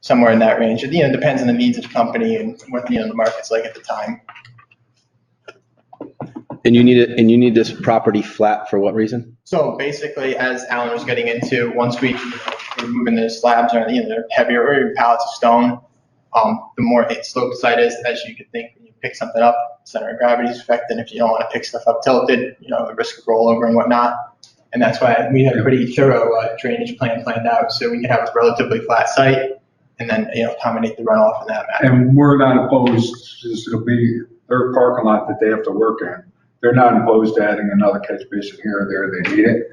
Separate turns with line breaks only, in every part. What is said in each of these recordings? somewhere in that range. It, you know, depends on the needs of the company and what, you know, the market's like at the time.
And you need it, and you need this property flat for what reason?
So basically, as Alan was getting into, once we were moving the slabs or, you know, they're heavier or even pallets of stone, um, the more it sloped side is, as you could think, when you pick something up, center of gravity is affected. If you don't want to pick stuff up tilted, you know, the risk of rollover and whatnot. And that's why we had a pretty thorough uh, drainage plan planned out, so we could have a relatively flat site and then, you know, accommodate the runoff in that manner.
And we're not opposed, this will be their parking lot that they have to work in. They're not opposed to adding another catch basin here or there, they need it.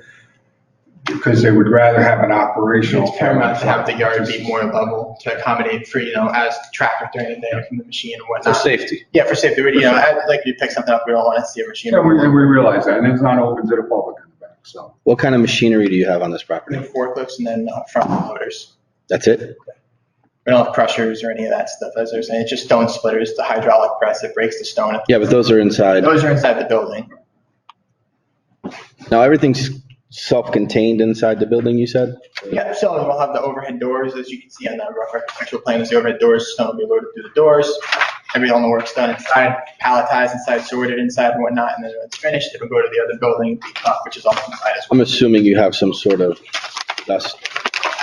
Because they would rather have an operational.
It's paramount to have the yard be more level to accommodate for, you know, as traffic during the day from the machine and
For
whatnot.
safety.
Yeah, for safety, you know, I'd like you to pick something up, we don't want to see a machine.
Yeah, we, and we realize that, and it's not open to the public in the back, so.
What kind of machinery do you have on this
We
property?
have forklifts and then uh, front loaders.
That's it?
We don't have crushers or any of that stuff, as I was saying, it's just stone splitters, the hydraulic press that breaks the stone.
Yeah, but those are inside.
Those are inside the building.
Now, everything's self-contained inside the building, you said?
Yeah, so we'll have the overhead doors, as you can see on the rough architectural plan, is the overhead doors, stone will be loaded through the doors. Every element work's done inside, palletized inside, sorted inside and whatnot, and then when it's finished, it'll go to the other building, which is also inside as well.
I'm assuming you have some sort of dust.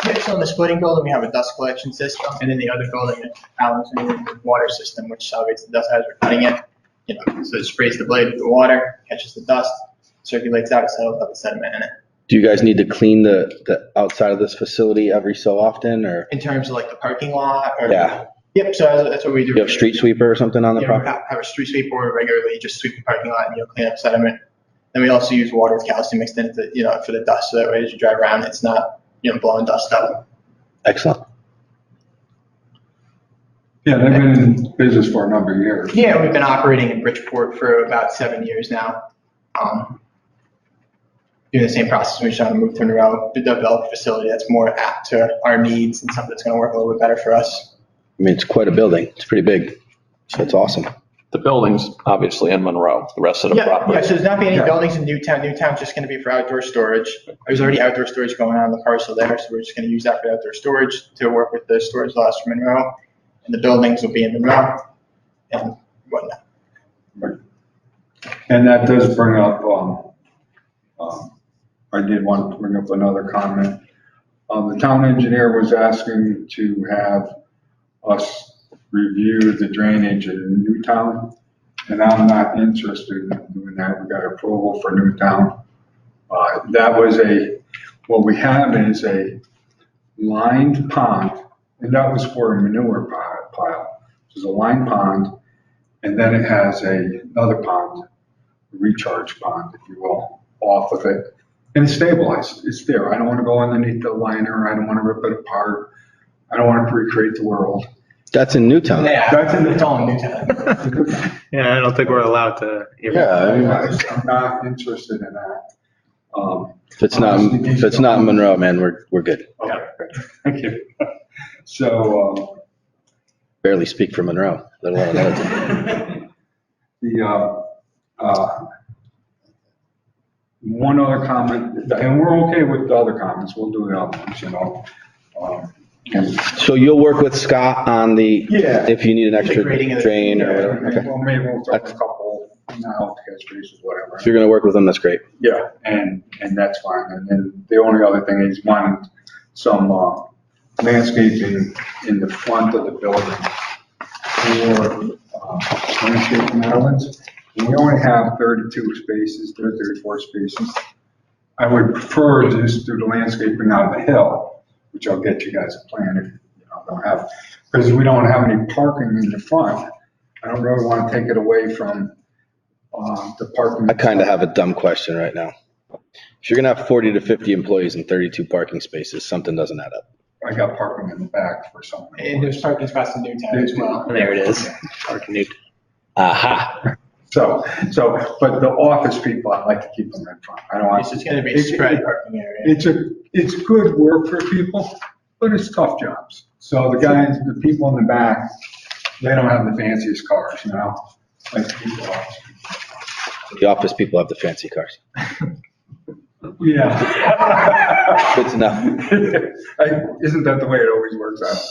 Yeah, so in the splitting building, we have a dust collection system, and in the other building, Alan's in the water system, which salvages the dust as we're cutting it. You know, so it sprays the blade with the water, catches the dust, circulates out, settles up the sediment in it.
Do you guys need to clean the, the outside of this facility every so often, or
In terms of like the parking lot or.
Yeah.
Yep, so that's- that's what we do.
you have street sweeper or something on the
Yeah, we
property?
have have a street sweeper regularly, just sweep the parking lot and, you know, clean up sediment. And we also use water with calcium mixed in it, to, you know, for the dust, so that way as you drive around, it's not, you know, blowing dust up.
Excellent.
Yeah, they've been in business for a number of years.
Yeah, we've been operating in Bridgeport for about seven years now. Um, Doing the same process, we just want to move to a row, develop a facility that's more apt to our needs and something that's going to work a little bit better for us.
I mean, it's quite a building. It's pretty big. So it's awesome.
The buildings, obviously, in Monroe, the rest of the
Yeah, yeah,
property.
so there's not be any
Yeah.
buildings in Newtown, Newtown's just going to be for outdoor storage. There's already outdoor storage going on in the parcel there, so we're just going to use that for outdoor storage to work with the storage laws for Monroe. And the buildings will be in Monroe and whatnot.
And that does bring up, um, um, I did want to bring up another comment. Um, the town engineer was asking to have us review the drainage in Newtown, and I'm not interested in doing that. We got approval for Newtown. Uh, that was a, what we have is a lined pond, and that was for a manure pi- pile. There's a lined pond, and then it has a, another pond recharge pond, if you will, off of it. And it's stabilized, it's there. I don't want to go underneath the liner, I don't want to rip it apart. I don't want to recreate the world.
That's in Newtown.
Yeah, it's all in Newtown.
Yeah, I don't think we're allowed to. even-
Yeah, I mean,
I'm not interested in that. Um,
if it's not, if it's not Monroe, man, we're, we're good.
Okay, thank you. So,
Barely speak for Monroe, let alone Littleton.
um, the, uh, uh, one other comment, and we're okay with the other comments, we'll do the other ones, you know. Um, and
So you'll work with Scott on the,
Yeah.
if you need an extra
grading of the-
drain or
Yeah,
whatever? Okay.
Well, maybe we'll throw a couple, now, catch bases, whatever.
If you're gonna work with them, that's great.
Yeah, and, and that's fine. And then the only other thing is wanting some uh, landscaping in the front of the building for uh, landscaping islands. And we only have 32 spaces, there are 34 spaces. I would prefer to just do the landscaping out of the hill, which I'll get you guys a plan if you know, don't have, because we don't have any parking in the front. I don't really want to take it away from uh, the parking.
I kind of have a dumb question right now. If you're gonna have 40 to 50 employees and 32 parking spaces, something doesn't add up.
I got parking in the back for some.
And there's parking spots in Newtown as well.
There it is. Or can you-
Aha.
So, so, but the office people, I like to keep them in front. I don't
It's
want,
just going to be
It's-
spread parking area.
it's a, it's good work for people, but it's tough jobs. So the guys, the people in the back, they don't have the fanciest cars, you know? Like people,
The office people have the fancy cars.
yeah.
Good to know.
I- Isn't that the way it always works out?